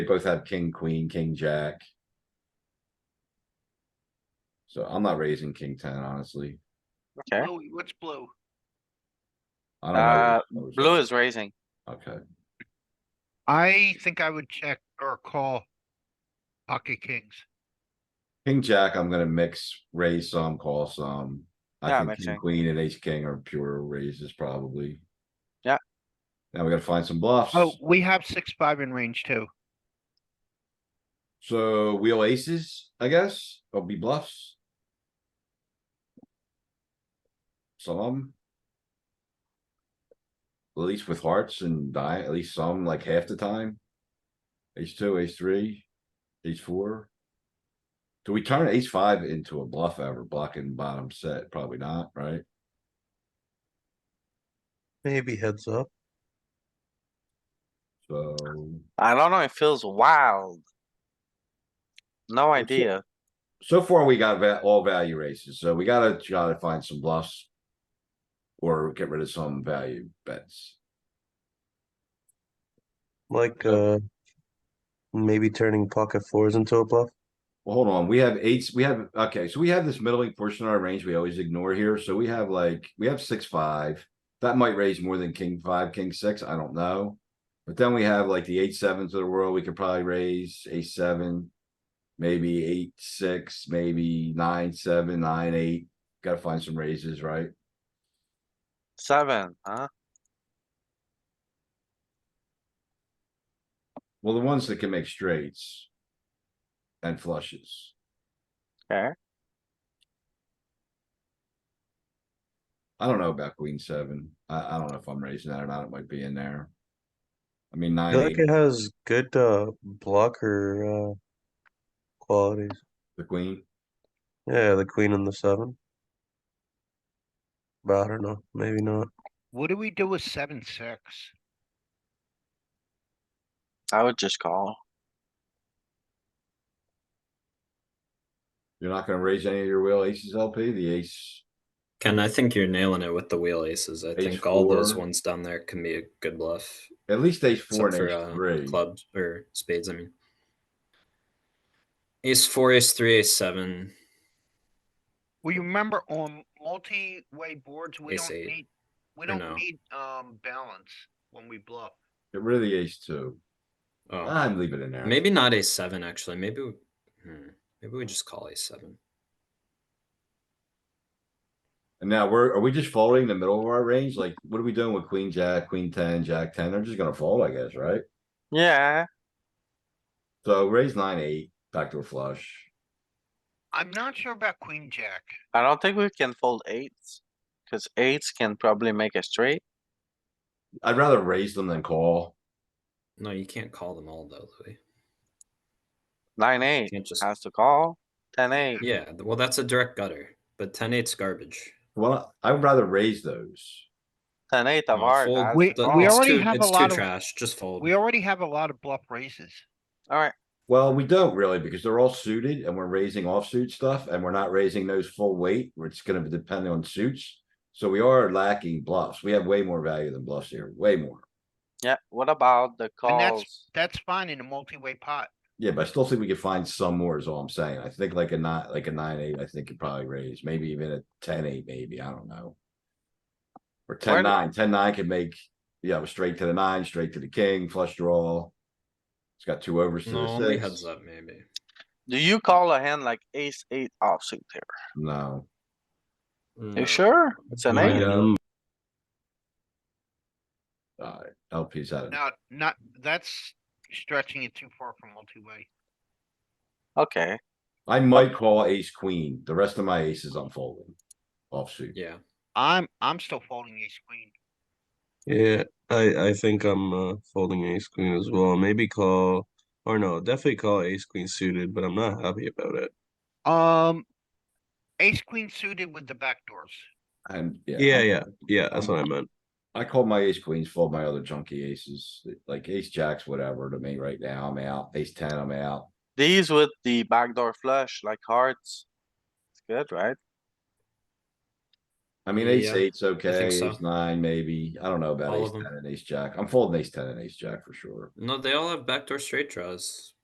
They both have king, queen, king, jack. So I'm not raising king ten, honestly. Okay. Bluey, what's blue? I Uh, don't know. Blue is raising. Okay, I think I would check or call pocket kings. king, jack, I'm gonna mix, raise some, call some. Yeah, I think king, mixing. queen and ace, king are pure raises probably. Yeah. Now we gotta find some bluffs. Oh, we have six, five in range too. So wheel aces, I guess, will be bluffs. Some. At least with hearts and die, at least some, like half the time. Ace two, ace three, ace four. Do we turn ace five into a bluff ever, blocking bottom set? Probably not, right? Maybe heads up. So, I don't know, it feels wild. No It's- idea. so far we got va- all value races, so we gotta try to find some bluffs. Or get rid of some value bets. Like uh maybe turning pocket fours into a bluff. Well, hold on, we have eights, we have, okay, so we have this middling portion of our range we always ignore here, so we have like, we have six, five. That might raise more than king five, king six, I don't know. But then we have like the eight sevens of the world, we could probably raise ace seven. Maybe eight, six, maybe nine, seven, nine, eight, gotta find some raises, right? Seven, huh? Well, the ones that can make straights. And flushes. Okay. I don't know about queen seven. I, I don't know if I'm raising that or not. It might be in there. I mean, I nine, feel like eight, it has good uh blocker uh qualities. the queen. Yeah, the queen and the seven. But I don't know, maybe not. What do we do with seven, six? I would just call. You're not gonna raise any of your wheel aces LP, the ace. Ken, I think you're nailing it with the wheel aces. I Ace think all those four. ones down there can be a good bluff. At least ace four and Except for ace uh, three. clubs or spades, I mean. Ace four, ace three, ace seven. Well, you remember on multi-way boards, we Ace don't eight, need, we or don't no? need, um, balance when we bluff. Get rid of the ace two. Oh, I'm leaving it in there. maybe not ace seven actually. Maybe we, hmm, maybe we just call ace seven. And now we're, are we just folding the middle of our range? Like, what are we doing with queen, jack, queen ten, jack ten? They're just gonna fold, I guess, right? Yeah, So raise nine, eight, backdoor flush. I'm not sure about queen, jack. I don't think we can fold eights. Cause eights can probably make a straight. I'd rather raise them than call. No, you can't call them all though, Louis. Nine, You eight can't just has to call. Ten, eight. yeah. th- Well, that's a direct gutter, but 10-8's garbage. Well, I'd rather raise those. Ten, eight of No, hearts. fold has to We- the- call. we it's already too, have a it's too lot of- trash. Just fold. We already have a lot of bluff raises. Alright, Well, we don't really because they're all suited and we're raising offsuit stuff and we're not raising those full weight. where It's gonna depend on suits. So we are lacking bluffs. We have way more value than bluffs here, way more. yeah, what about the And that's- calls? That's fine in a multi-way pot. Yeah, but I still think we could find some more is all I'm saying. I think like a nine, like a nine, eight, I think could probably raise, maybe even a ten, eight, maybe, I don't know. Or ten, Where do- nine, ten, nine could make, you know, straight to the nine, straight to the king, flush draw. It's got two overs to no, the only heads six. up maybe. Do you call a hand like ace, eight offsuit there? No, No. Mm. You sure? It's an Yeah. eight. Yeah. uh, LP's out of, Now, not, that's stretching it too far from multi-way. Okay, I might call ace queen. The rest of my aces I'm folding. Offsuit. Yeah. I'm, I'm still folding ace queen. Yeah, I I think I'm uh folding ace queen as well. Maybe call or no, definitely call ace queen suited, but I'm not happy about it. Um, ace queen suited with the backdoors. And yeah, Yeah, yeah, yeah, that's what I meant. I call my ace queens, fold my other junky aces, like ace jacks, whatever to me right now. I'm out. Ace ten, I'm out. these with the backdoor flush like hearts. It's good, right? I mean, ace Yeah, eight's okay, so. ace nine maybe. I don't know about All ace of 'em. ten and ace jack. I'm folding ace ten and ace jack for sure. No, they all have backdoor straight draws.